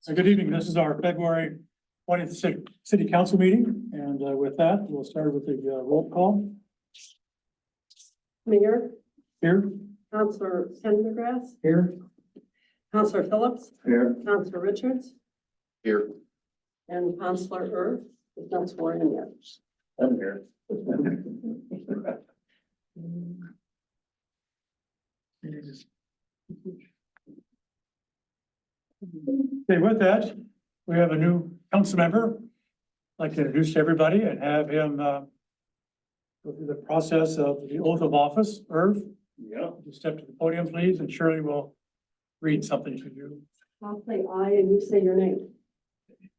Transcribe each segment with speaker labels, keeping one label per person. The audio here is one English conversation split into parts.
Speaker 1: So good evening. This is our February twentieth city, city council meeting, and uh, with that, we'll start with the uh, roll call
Speaker 2: Mayor,
Speaker 1: here.
Speaker 2: Counselor Pendergrass,
Speaker 1: Here.
Speaker 2: Counselor Phillips,
Speaker 3: Here.
Speaker 2: Counselor Richards,
Speaker 3: Here.
Speaker 2: and Counselor Erb, is not sworn in yet.
Speaker 3: I'm here.
Speaker 1: Okay, with that, we have a new council member. I'd like to introduce everybody and have him uh, go through the process of the oath of office. Irv,
Speaker 3: Yeah.
Speaker 1: would you step to the podium, please, and Shirley will read something to you.
Speaker 2: I'll say aye and you say your name.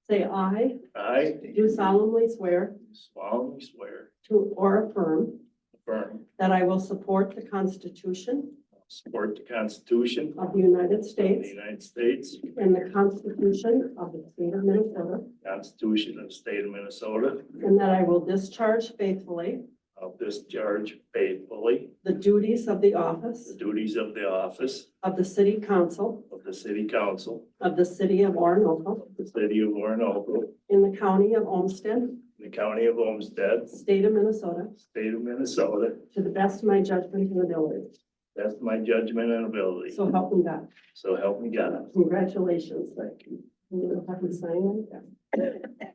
Speaker 2: Say aye,
Speaker 3: I
Speaker 2: do solemnly swear
Speaker 3: solemnly swear,
Speaker 2: to or affirm
Speaker 3: affirm,
Speaker 2: that I will support the Constitution
Speaker 3: support the Constitution
Speaker 2: of the United
Speaker 3: of the
Speaker 2: States
Speaker 3: United States,
Speaker 2: and the Constitution of the State of Minnesota,
Speaker 3: Constitution of the State of Minnesota,
Speaker 2: and that I will discharge faithfully
Speaker 3: of discharge faithfully
Speaker 2: the duties of the
Speaker 3: the
Speaker 2: office
Speaker 3: duties of the office
Speaker 2: of the City Council
Speaker 3: of the City Council
Speaker 2: of the City of Orinoco
Speaker 3: of the City of Orinoco,
Speaker 2: in the County of Olmsted,
Speaker 3: in the County of Olmsted,
Speaker 2: State of Minnesota,
Speaker 3: State of Minnesota,
Speaker 2: to the best of my judgment and ability.
Speaker 3: that's my judgment and ability.
Speaker 2: So help me God.
Speaker 3: So help me God.
Speaker 2: Congratulations.
Speaker 3: Thank you.
Speaker 2: You don't have to sign it.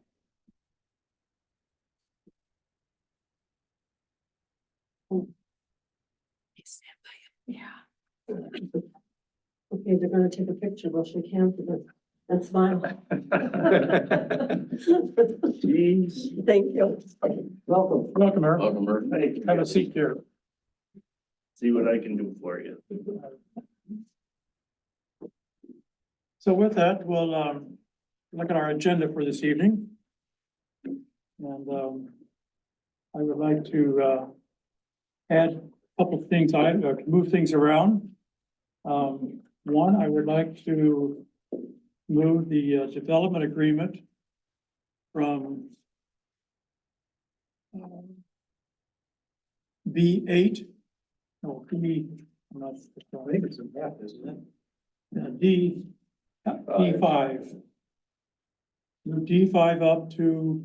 Speaker 2: Okay, they're gonna take a picture, well, she can't, that's fine. Thank
Speaker 3: Jeez.
Speaker 2: you.
Speaker 3: Welcome.
Speaker 1: Welcome, Irv.
Speaker 3: Welcome, Bert. Thank you.
Speaker 1: Have a seat here.
Speaker 3: See what I can do for you.
Speaker 1: So with that, we'll um, look at our agenda for this evening. And um, I would like to uh, add a couple of things, I, uh, move things around. Um, One, I would like to move the uh, development agreement from B eight, no, B, I'm not, I think it's a map, isn't it? Uh, D, D five. Move D five up to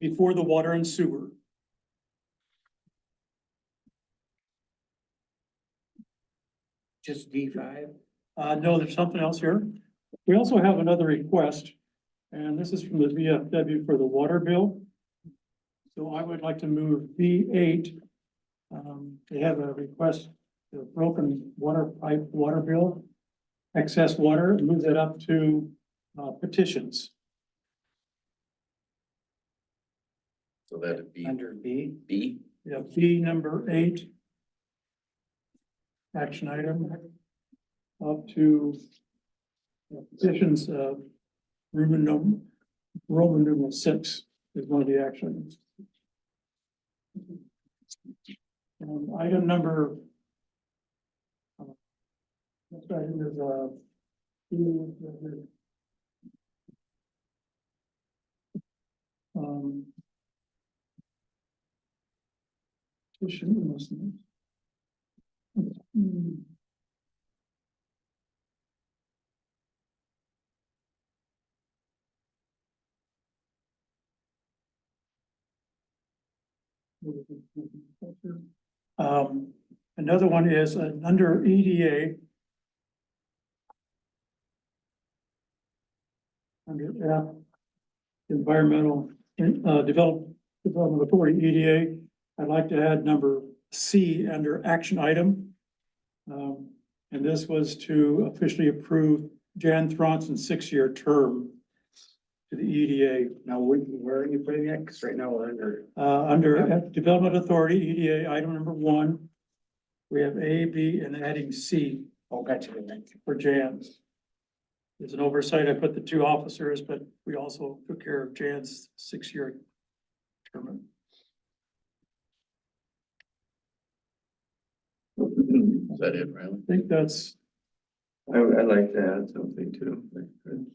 Speaker 1: before the water and sewer.
Speaker 4: Just D five?
Speaker 1: Uh, no, there's something else here. We also have another request, and this is from the VFW for the water bill. So I would like to move V eight. Um, they have a request, for broken water pipe, water bill, excess water, move that up to uh, petitions.
Speaker 5: So that'd be
Speaker 4: Under B?
Speaker 5: B,
Speaker 1: We have B number eight. Action item. Up to. uh, Petitions, uh, Roman num, Roman numeral six is one of the actions. Um, item number. uh, Next item is, uh. B- Um, We shouldn't miss them. Hmm. Um, another one is uh, under EDA. Under F, Environmental uh, Develop, Development Authority, E EDA. I'd like to add number C under action item. Um, and this was to officially approve Jan Thronson's six-year term to the E EDA,
Speaker 4: Now, where, where are you putting that? Cause right now we're under,
Speaker 1: uh, under Development Authority, EDA, item number one. We have A, B, and adding C
Speaker 4: oh, gotcha.
Speaker 1: for Jan's. It's an oversight. I put the two officers, but we also took care of Jan's six-year term.
Speaker 5: is that it, Riley?
Speaker 1: I think that's
Speaker 3: I, I'd like to add something too.